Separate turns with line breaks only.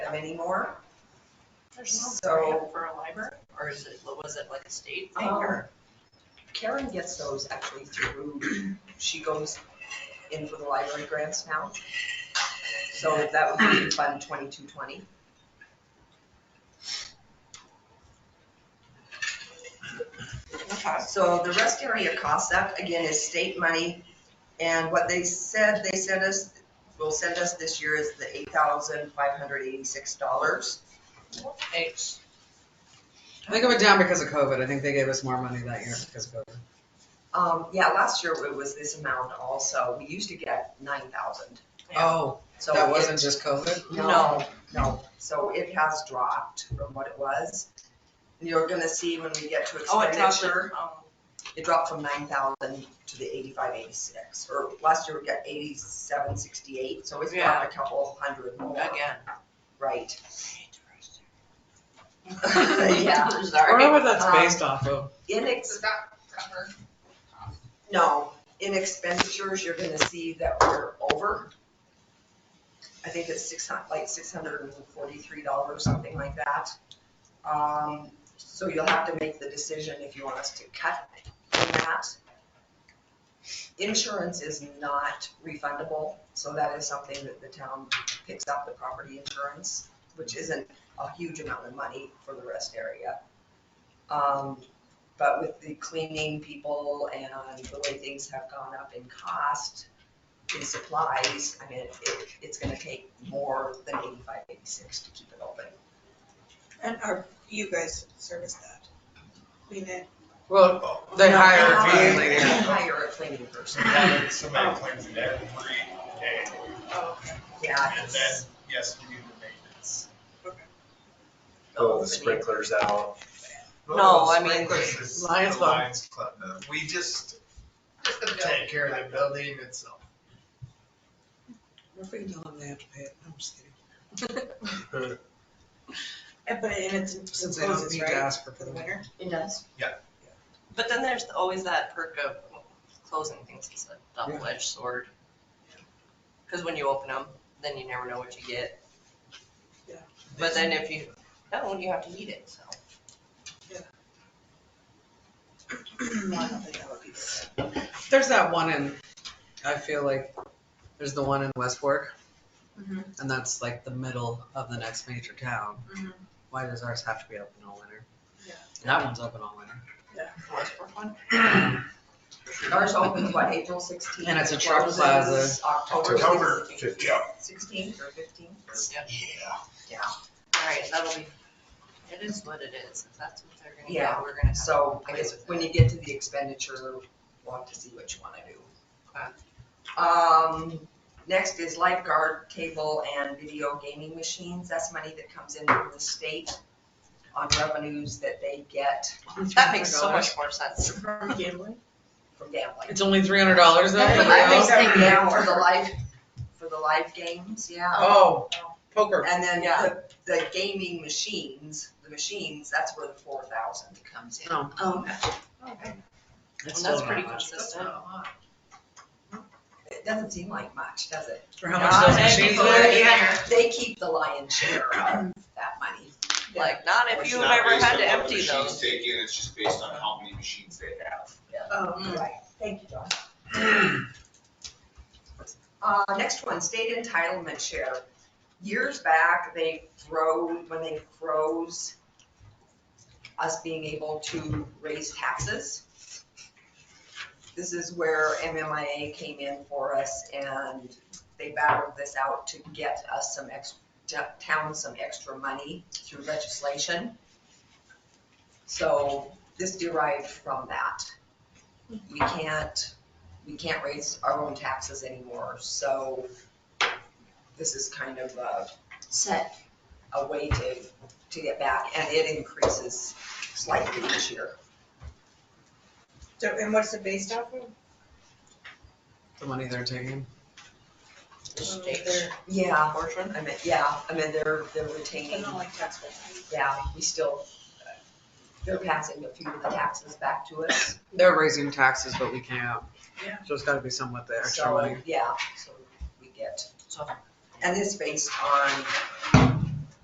have anymore,
There's no
So-
grant for a library, or is it, was it like a state thing,
Um,
or?
Karen gets those actually through, she goes in for the library grants now. So that would be Fund twenty-two twenty. So the rest area cost, that again is state money. And what they said, they sent us, will send us this year is the eight thousand five hundred eighty-six dollars. Um,
Thanks.
I think it went down because of COVID. I think they gave us more money that year because of COVID.
Um, yeah, last year it was this amount also. We used to get nine thousand.
Yeah.
Oh,
So
that
it-
wasn't just COVID?
No, no, so it has dropped from what it was. You're gonna see when we get to
Oh, it dropped it,
expenditure,
oh,
it dropped from nine thousand to the eighty-five, eighty-six, or last year we got eighty-seven, sixty-eight, so it's
Yeah.
dropped a couple hundred more,
again.
right? Yeah.
I um, wonder
Sorry.
what that's based off of.
Inex,
Does that cover?
no, in expenditures, you're gonna see that we're over. I think it's six hun, like six hundred and forty-three dollars, something like that. Um, so you'll have to make the decision if you want us to cut in that. Insurance is not refundable, so that is something that the town picks up, the property insurance, which isn't a huge amount of money for the rest area. Um, but with the cleaning people and the way things have gone up in cost in supplies, I mean, it, it's gonna take more than eighty-five, eighty-six to keep it open.
And are you guys service that? I mean, it-
Well, they hire a
Hire-
cleaning lady.
Hire a cleaning person,
Oh.
Somebody claims it every day,
oh, okay.
yeah.
and then,
it's
yes, we do the maintenance.
Pull
opening.
Oh, the sprinklers out.
No, I mean,
Sprinklers is the
Lions Club.
Lions Club, though. we just
Just the bill.
take care of the building itself.
What if we tell them they have to pay it? I'm just kidding.
And- But, and it's,
Since they don't
imposes,
need to
right,
ask for
for the
permission.
winter?
It does.
But then there's always that perk of closing things, it's a double edged sword. Cause when you open them, then you never know what you get.
Yeah.
But then if you, that one you have to eat it, so.
Oh,
No, I don't think that would be good.
There's that one in, I feel like, there's the one in West Fork.
Mhm.
And that's like the middle of the next major town.
Mhm.
Why does ours have to be open all winter?
Yeah.
That one's open all winter.
Ours opens what, April sixteenth?
And it's a truck plaza.
Oh,
October
October
sixteenth.
Yeah.
Sixteenth or fifteenth?
Alright, that'll be, it is what it is, if that's what they're gonna
Yeah,
get, we're gonna have.
So I guess when you get to the expenditure, we'll have to see what you wanna do. Um, next is lifeguard table and video gaming machines. That's money that comes in from the state on revenues that they get
That makes so much more sense.
From gambling?
from gambling.
It's only three hundred dollars though. for the
I think
house?
so.
Yeah, For the live, for the live games, yeah.
Oh, poker.
And then
Yeah.
the, the gaming machines, the machines, that's where the four thousand comes in.
No.
Oh.
It's
Um, And that's
still not
pretty
much.
consistent.
It doesn't seem like much, does it?
For how
Not
much those
every
machines
year.
are?
They keep the lion's share of that money.
Like, not if
It's
you've
not
ever
based
had
on
to
what
empty
Machines
those.
take in, it's just based on how many machines they have.
Oh,
Right, thank you, John. Uh, next one, state entitlement share. Years back, they froze, when they froze us being able to raise taxes. This is where MMIA came in for us and they battled this out to get us some ex, to town some extra money through legislation. So this derived from that we can't, we can't raise our own taxes anymore, so this is kind of a. Set. A way to, to get back, and it increases slightly each year.
so, and what's it based off of?
The money they're taking.
State
Yeah,
portion.
I mean, yeah, I mean, they're, they're retaining,
Kind of like taxpayer.
yeah, we still, uh, they're passing a few of the taxes back to us,
They're raising taxes, but we can't.
Yeah.
So it's gotta be somewhat the extra
so,
money.
yeah, so we get.
So-
And this based on